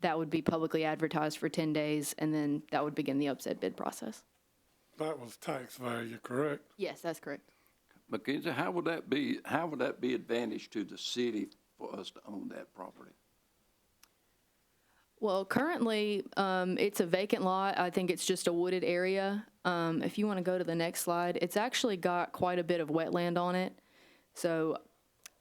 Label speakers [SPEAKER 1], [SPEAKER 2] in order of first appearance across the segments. [SPEAKER 1] That would be publicly advertised for 10 days, and then that would begin the upset bid process.
[SPEAKER 2] That was tax value, correct?
[SPEAKER 1] Yes, that's correct.
[SPEAKER 3] Mackenzie, how would that be, how would that be advantage to the city for us to own that property?
[SPEAKER 1] Well, currently, um, it's a vacant lot. I think it's just a wooded area. Um, if you want to go to the next slide, it's actually got quite a bit of wetland on it. So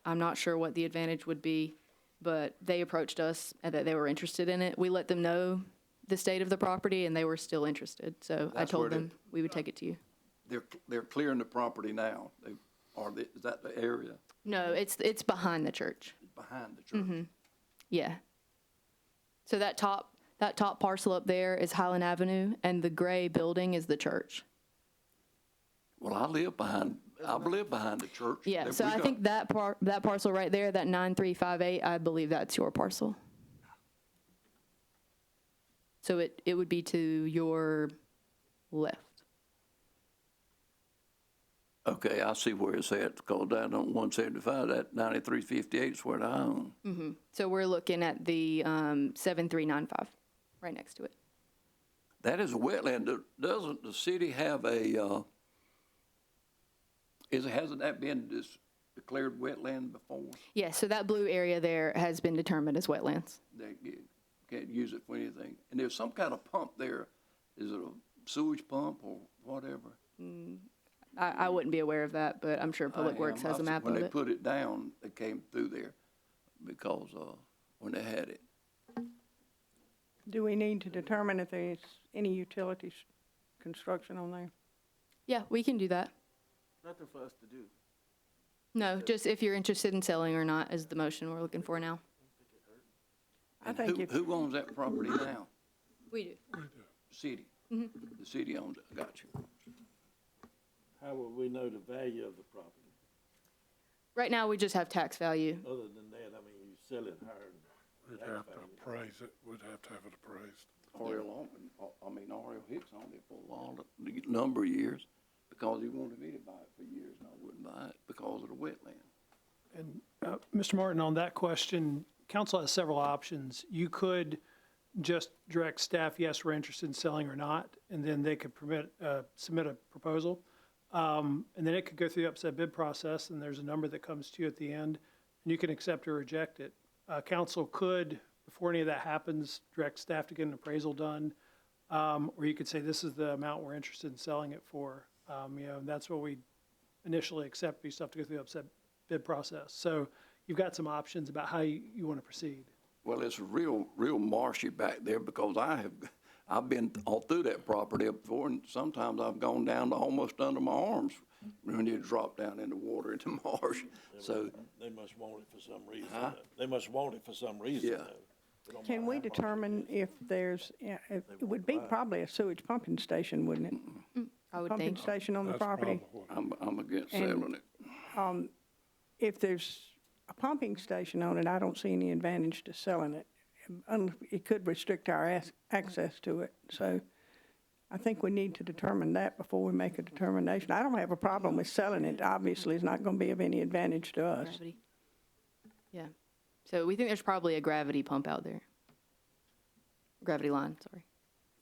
[SPEAKER 1] I'm not sure what the advantage would be, but they approached us and that they were interested in it. We let them know the state of the property and they were still interested. So I
[SPEAKER 3] That's where
[SPEAKER 1] told
[SPEAKER 3] the-
[SPEAKER 1] them we would take it to you.
[SPEAKER 3] They're, they're clearing the property now, They- or the- is that the area
[SPEAKER 1] No, it's, it's behind the church.
[SPEAKER 3] behind the
[SPEAKER 1] Mm-hmm.
[SPEAKER 3] church?
[SPEAKER 1] Yeah. So that top, that top parcel up there is Highland Avenue and the gray building is the church.
[SPEAKER 3] Well, I live behind, I've lived behind the church.
[SPEAKER 1] Yeah,
[SPEAKER 3] That
[SPEAKER 1] so
[SPEAKER 3] we
[SPEAKER 1] I
[SPEAKER 3] got-
[SPEAKER 1] think that par, that parcel right there, that nine three five eight, I believe that's your parcel. So it, it would be to your left.
[SPEAKER 3] Okay, I see where it's at, because down on one seventy-five, that ninety-three fifty-eight is where I own.
[SPEAKER 1] Mm. So we're looking at the, um, seven three nine five, right next to it.
[SPEAKER 3] That is a wetland. Do- Doesn't the city have a, uh, is, hasn't that been dis- declared wetland before?
[SPEAKER 1] Yeah, so that blue area there has been determined as wetlands.
[SPEAKER 3] They you can't use it for anything. And there's some kind of pump there. Is it a sewage pump or whatever?
[SPEAKER 1] I, I wouldn't be aware of that, but I'm sure Public
[SPEAKER 3] I
[SPEAKER 1] Works
[SPEAKER 3] am-
[SPEAKER 1] has a
[SPEAKER 3] I've-
[SPEAKER 1] map
[SPEAKER 3] When
[SPEAKER 1] of
[SPEAKER 3] they
[SPEAKER 1] it.
[SPEAKER 3] put it down, they came through there because, uh, when they had it.
[SPEAKER 4] Do we need to determine if there's any utilities construction on there?
[SPEAKER 1] Yeah, we can do that.
[SPEAKER 5] Nothing for us to do.
[SPEAKER 1] No, just if you're interested in selling or not is the motion we're looking for now.
[SPEAKER 4] I
[SPEAKER 3] And
[SPEAKER 4] think
[SPEAKER 3] who-
[SPEAKER 4] if,
[SPEAKER 3] Who owns that property now?
[SPEAKER 1] We do.
[SPEAKER 3] City. The city owns it. Got you.
[SPEAKER 5] How would we know the value of the property?
[SPEAKER 1] Right now, we just have tax value.
[SPEAKER 5] Other than that, I mean, you sell it higher
[SPEAKER 2] We'd
[SPEAKER 5] than
[SPEAKER 2] have
[SPEAKER 5] that
[SPEAKER 2] to
[SPEAKER 5] value.
[SPEAKER 2] appraise it, we'd have to have it appraised.
[SPEAKER 3] Oriel Altman, I mean, Oriel Hicks owned it for a long, a number of years because he wanted me to buy it for years and I wouldn't buy it because of the wetland.
[SPEAKER 6] And uh, Mr. Martin, on that question, council has several options. You could just direct staff, yes, we're interested in selling or not, and then they could permit, uh, submit a proposal. Um, And then it could go through the upset bid process, and there's a number that comes to you at the end, and you can accept or reject it. Uh, Council could, before any of that happens, direct staff to get an appraisal done, um, or you could say, this is the amount we're interested in selling it for. Um, You know, and that's what we initially accept, but you still have to go through the upset bid process. So you've got some options about how you, you want to proceed.
[SPEAKER 3] Well, it's real, real marshy back there because I have, I've been all through that property up before and sometimes I've gone down to almost under my arms when you drop down in the water in the marsh. So,
[SPEAKER 5] They must want it for some reason. though. They must want it for some reason,
[SPEAKER 3] Yeah.
[SPEAKER 5] though. They don't
[SPEAKER 4] can
[SPEAKER 5] mind
[SPEAKER 4] we
[SPEAKER 5] how much it
[SPEAKER 4] determine if there's, yeah, if- it would be probably a sewage pumping station, wouldn't it?
[SPEAKER 1] I would
[SPEAKER 4] Pumping
[SPEAKER 1] think.
[SPEAKER 4] station on the
[SPEAKER 2] That's
[SPEAKER 4] property.
[SPEAKER 2] probably what-
[SPEAKER 3] I'm, I'm against
[SPEAKER 4] And-
[SPEAKER 3] selling it.
[SPEAKER 4] If there's a pumping station on it, I don't see any advantage to selling it. Un- It could restrict our ac- access to it, so I think we need to determine that before we make a determination. I don't have a problem with selling it, obviously, it's not gonna be of any advantage to us.
[SPEAKER 1] Gravity. Yeah. So we think there's probably a gravity pump out there. Gravity line, sorry.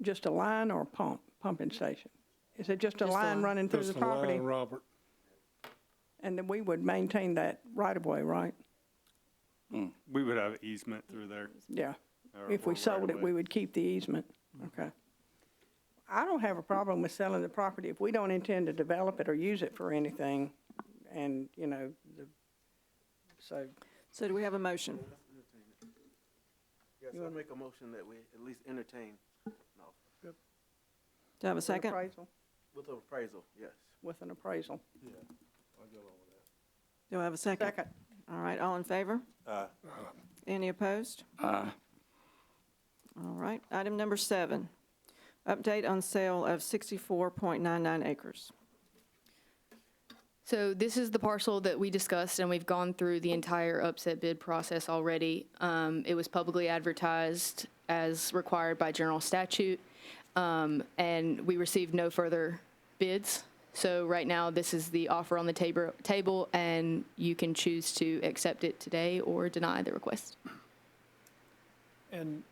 [SPEAKER 4] Just a line or a pump, pumping station? Is it just a
[SPEAKER 1] Just a
[SPEAKER 4] line
[SPEAKER 1] line.
[SPEAKER 4] running through the
[SPEAKER 2] Just a line,
[SPEAKER 4] property?
[SPEAKER 2] Robert.
[SPEAKER 4] And then we would maintain that right of way, right?
[SPEAKER 7] We would have easement through there.
[SPEAKER 4] Yeah.
[SPEAKER 7] or-
[SPEAKER 4] If
[SPEAKER 7] or
[SPEAKER 4] we
[SPEAKER 7] right
[SPEAKER 4] sold
[SPEAKER 7] of
[SPEAKER 4] it,
[SPEAKER 7] way.
[SPEAKER 4] we would keep the easement. Okay. I don't have a problem with selling the property if we don't intend to develop it or use it for anything. And, you know, the, so
[SPEAKER 8] So do we have a motion?
[SPEAKER 5] Yes, I make a motion that we at least entertain, no,
[SPEAKER 8] Do I have a
[SPEAKER 4] an
[SPEAKER 8] second?
[SPEAKER 4] appraisal,
[SPEAKER 5] with appraisal, yes.
[SPEAKER 4] with an appraisal.
[SPEAKER 8] Do I have a second?
[SPEAKER 4] Second.
[SPEAKER 8] All right, all in favor?
[SPEAKER 5] Aye.
[SPEAKER 8] Any opposed?
[SPEAKER 3] I,
[SPEAKER 8] All right, item number seven, update on sale of 64.99 acres.
[SPEAKER 1] So this is the parcel that we discussed, and we've gone through the entire upset bid process already. Um, it was publicly advertised as required by general statute, um, and we received no further bids. So right now, this is the offer on the tabor- table, and you can choose to accept it today or deny the request.
[SPEAKER 6] And